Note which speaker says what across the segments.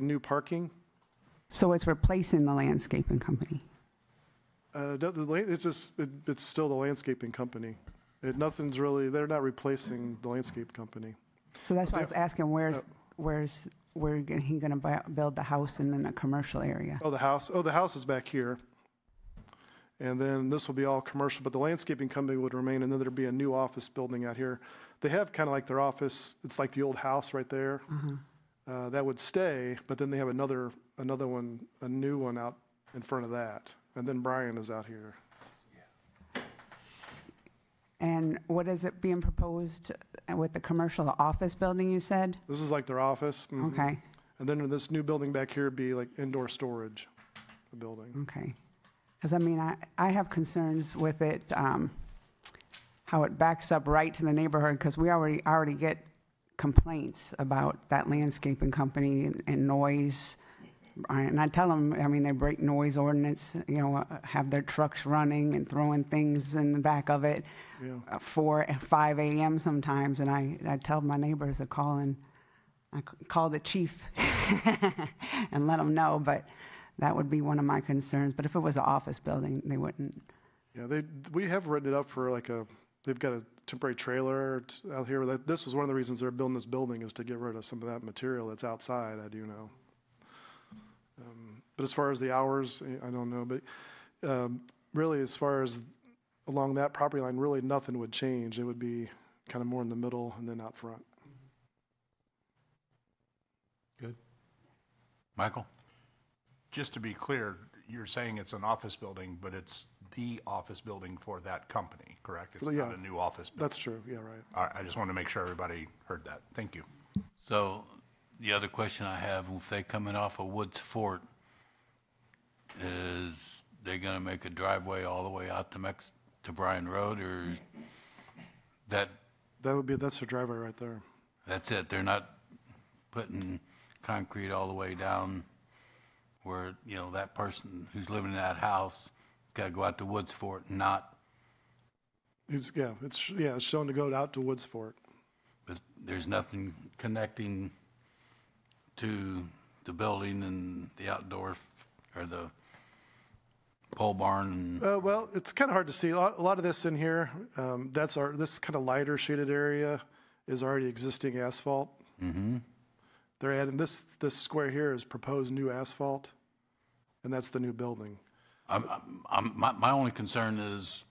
Speaker 1: New parking?
Speaker 2: So it's replacing the landscaping company.
Speaker 1: Uh, no, the la- It's just, it- it's still the landscaping company. It- Nothing's really, they're not replacing the landscape company.
Speaker 2: So that's why I was asking, where's,
Speaker 1: Yep.
Speaker 2: where's, where g- he gonna bu- build the house and then a commercial area?
Speaker 1: Oh, the house, oh, the house is back here. And then this will be all commercial, but the landscaping company would remain, and then there'd be a new office building out here. They have kind of like their office, it's like the old house right there. Uh, That would stay, but then they have another, another one, a new one out in front of that. And then Brian is out here.
Speaker 2: And what is it being proposed with the commercial, the office building you said?
Speaker 1: This is like their office. mhm.
Speaker 2: Okay,
Speaker 1: And then this new building back here would be like indoor storage, the building.
Speaker 2: okay. Because I mean, I, I have concerns with it, um, how it backs up right to the neighborhood, because we already, already get complaints about that landscaping company and noise. And I tell them, I mean, they break noise ordinance, you know, uh, have their trucks running and throwing things in the back of it.
Speaker 1: Yeah.
Speaker 2: uh, four, five AM sometimes, and I, I tell my neighbors to call and, I c- call the chief and let them know, but that would be one of my concerns. But if it was an office building, they wouldn't.
Speaker 1: Yeah, they, we have written it up for like a, they've got a temporary trailer t- out here. That- This was one of the reasons they're building this building is to get rid of some of that material that's outside, I do know. Um, But as far as the hours, eh, I- I don't know, but um, really as far as along that property line, really nothing would change. It would be kind of more in the middle and then out front.
Speaker 3: Good. Michael?
Speaker 4: Just to be clear, you're saying it's an office building, but it's the office building for that company, correct? It's
Speaker 1: yeah.
Speaker 4: not a new office. buil-
Speaker 1: That's true, yeah, right.
Speaker 4: All right, I just wanted to make sure everybody heard that. Thank you.
Speaker 3: So the other question I have, if they coming off of Woods Fort, is they gonna make a driveway all the way out to Mex, to Bryan Road, or that,
Speaker 1: That would be, that's the driveway right there.
Speaker 3: that's it? They're not putting concrete all the way down where, you know, that person who's living in that house gotta go out to Woods Fort, not,
Speaker 1: It's, yeah, it's, yeah, it's shown to go out to Woods Fort.
Speaker 3: but there's nothing connecting to the building and the outdoor, f- or the pole barn and
Speaker 1: Uh, well, it's kind of hard to see. A lot, a lot of this in here, um, that's our, this kind of lighter shaded area is already existing asphalt. Mm-hmm. They're adding, this, this square here is proposed new asphalt, and that's the new building.
Speaker 3: I'm, I'm- I'm, my, my only concern is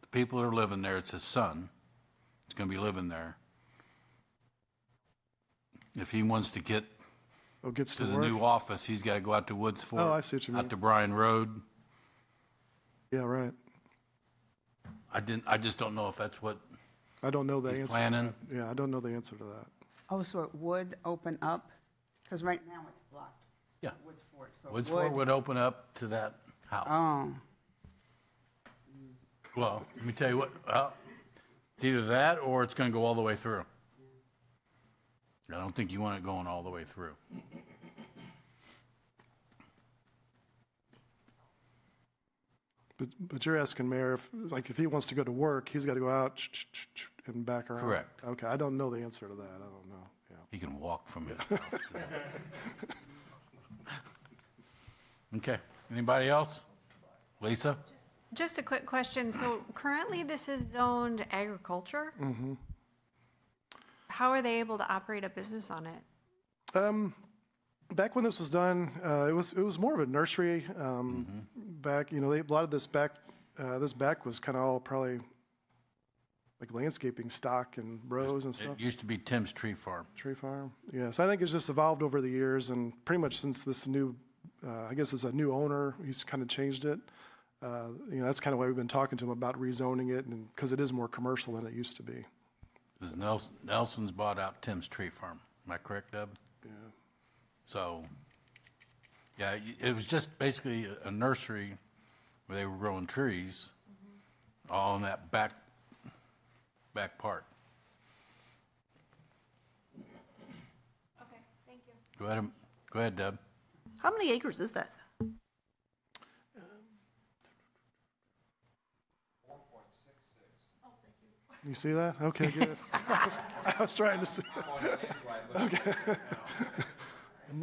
Speaker 3: the people that are living there, it's his son. He's going to be living there. If he wants to get
Speaker 1: Oh, gets
Speaker 3: to
Speaker 1: to
Speaker 3: the
Speaker 1: work?
Speaker 3: new office, he's got to go out to Woods Fort.
Speaker 1: Oh, I see what you mean.
Speaker 3: Out to Bryan Road.
Speaker 1: Yeah, right.
Speaker 3: I didn't, I just don't know if that's what
Speaker 1: I don't know the
Speaker 3: he's
Speaker 1: answer.
Speaker 3: planning.
Speaker 1: Yeah, I don't know the answer to that.
Speaker 2: Oh, so it would open up? Because right now it's blocked,
Speaker 3: Yeah.
Speaker 2: Woods Fort, so
Speaker 3: Woods
Speaker 2: it
Speaker 3: Fort
Speaker 2: would.
Speaker 3: would open up to that house.
Speaker 2: Oh,
Speaker 3: Well, let me tell you what, well, it's either that or it's going to go all the way through. I don't think you want it going all the way through.
Speaker 1: But, but you're asking Mayor, if, like, if he wants to go to work, he's got to go out ch- ch- ch- ch- and back around.
Speaker 3: Correct.
Speaker 1: Okay, I don't know the answer to that. I don't know, yeah.
Speaker 3: He can walk from his house to that. Okay, anybody else? Lisa?
Speaker 5: Just a quick question. So currently, this is zoned agriculture? Mm-hmm. How are they able to operate a business on it?
Speaker 1: Um, back when this was done, uh, it was it was more of a nursery. Um, Back, you know, they, a lot of this back, uh, this back was kind of all probably like landscaping stock and rows and stuff.
Speaker 3: It used to be Tim's Tree Farm.
Speaker 1: Tree farm. Yes, I think it's just evolved over the years, and pretty much since this new, uh, I guess it's a new owner. He's kind of changed it. Uh, you know, that's kind of why we've been talking to him about rezoning it, and because it is more commercial than it used to be.
Speaker 3: This is Nelson, Nelson's bought out Tim's Tree Farm. Am I correct, Deb?
Speaker 1: Yeah.
Speaker 3: So, yeah, y- it was just basically a- a nursery where they were growing trees all in that back, back part.
Speaker 5: Okay, thank you.
Speaker 3: Go ahead, and- go ahead, Deb.
Speaker 6: How many acres is that?
Speaker 1: You see that? Okay, good. I was- I was trying to see.